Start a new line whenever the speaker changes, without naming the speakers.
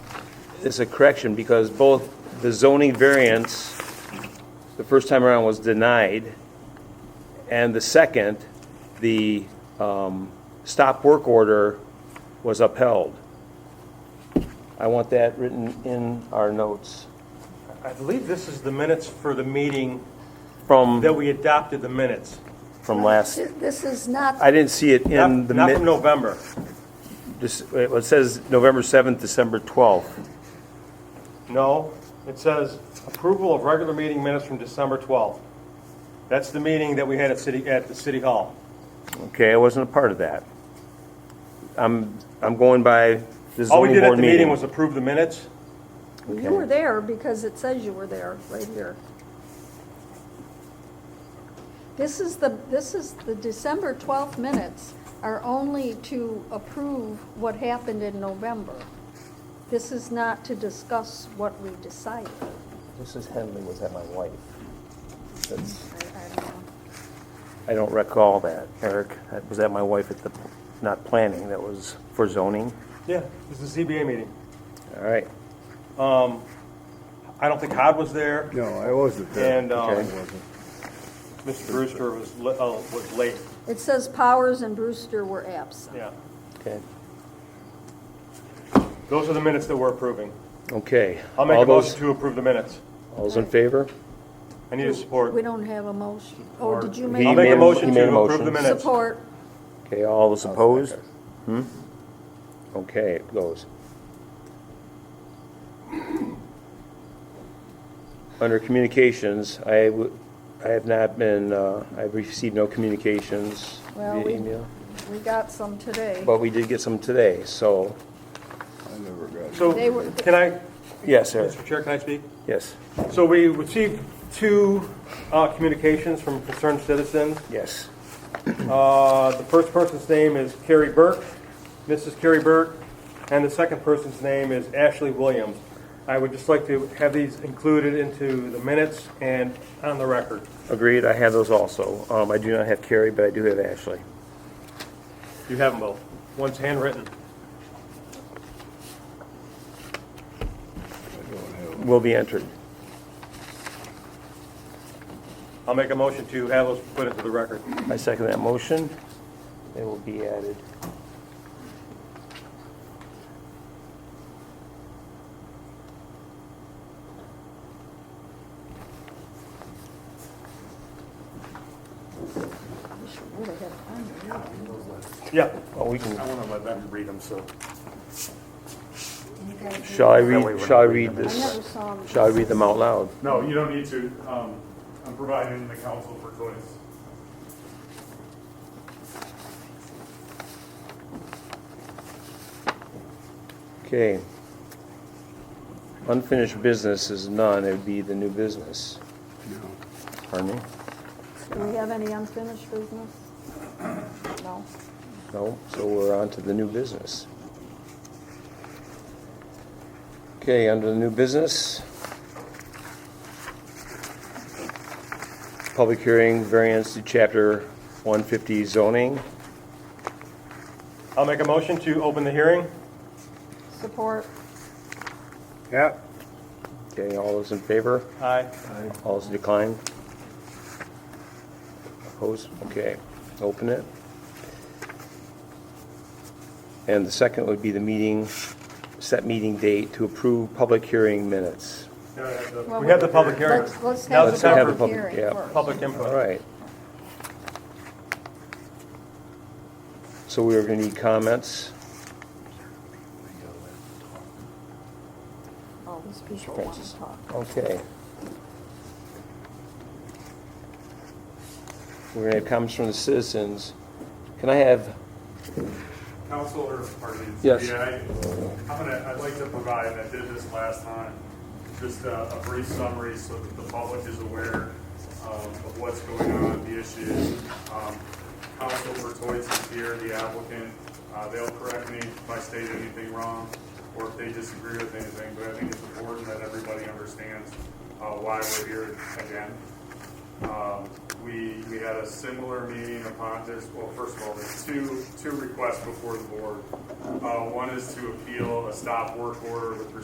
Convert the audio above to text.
it's a correction because both the zoning variance, the first time around was denied, and the second, the um, stop work order was upheld. I want that written in our notes.
I believe this is the minutes for the meeting
From,
that we adopted the minutes.
from last,
This is not,
I didn't see it in
Not
the.
not
mi-
from November.
this- It says November 7th, December 12th.
No, it says approval of regular meeting minutes from December 12th. That's the meeting that we had at city, at the city hall.
Okay, I wasn't a part of that. I'm, I'm going by the
All we
zoning
did at
board
the meeting
meeting.
was approve the minutes.
you were there because it says you were there, right here. This is the, this is, the December 12th minutes are only to approve what happened in November. This is not to discuss what we decided.
Mrs. Henley was at my wife. That's-
I- I don't know.
I don't recall that, Eric. That- Was that my wife at the, not planning, that was for zoning?
Yeah, this is the ZBA meeting.
All right.
I don't think Hod was there,
No, I wasn't there.
and um,
Okay.
Mr. Brewster was, li- uh, was late,
It says Powers and Brewster were absent.
yeah.
Okay.
Those are the minutes that we're approving.
Okay.
I'll make
All
a
those-
motion to approve the minutes.
All's in favor?
I need a support.
We don't have a motion. Oh, did you
He
I'll make
make
made
a
a-
motion
he made a
to approve
motion.
the minutes.
support?
Okay, all those opposed? Hmm? Okay, it goes. Under communications, I, w- I have not been, uh, I've received no communications
Well,
via
we-
email.
We got some today.
But we did get some today, so,
I never got it.
So,
They were-
can I,
yes, sir,
Mr. Chair, can I speak?
yes,
So we received two uh, communications from concerned citizens.
yes.
Uh, The first person's name is Carrie Burke, Mrs. Carrie Burke, and the second person's name is Ashley Williams. I would just like to have these included into the minutes and on the record.
Agreed, I have those also. Um, I do not have Carrie, but I do have Ashley.
You have them both. One's handwritten.
Will be entered.
I'll make a motion to have those put into the record.
I second that motion. It will be added.
Yeah.
Oh, we can,
I want to let them read them, so.
shall I read, shall I read
I never
this?
saw them.
Shall I read them out loud?
No, you don't need to. Um, I'm providing the council for choice.
Okay. Unfinished business is none, it would be the new business. Pardon me?
Do we have any unfinished business? No.
No, so we're on to the new business. Okay, under the new business. Public hearing variance to chapter 150 zoning.
I'll make a motion to open the hearing.
Support?
Yeah,
Okay, all those in favor?
Aye.
All those declined? Opposed? Okay, open it. And the second would be the meeting, set meeting date to approve public hearing minutes.
Can I have the-
Well,
We have the public hearing.
Let's, let's
Now's
have
the time
the
for
public
public-
hearing
yeah.
first.
Public
All
input.
right. So we are going to need comments.
All Oh, these people want
Francis.
to talk.
Okay. We're going to have comments from the citizens. Can I have,
Council or, pardon me?
Yes.
Yeah, I- I'm gonna, I'd like to provide, I did this last time, just a, a brief summary so that the public is aware um, of what's going on, the issues. Um, Council Bertoitz is here, the applicant, Uh, they'll correct me if I state anything wrong or if they disagree with anything, but I think it's important that everybody understands uh, why we're here again. Um, We, we had a similar meeting upon this, well, first of all, there's two, two requests before the board. Uh, One is to appeal a stop work order with respect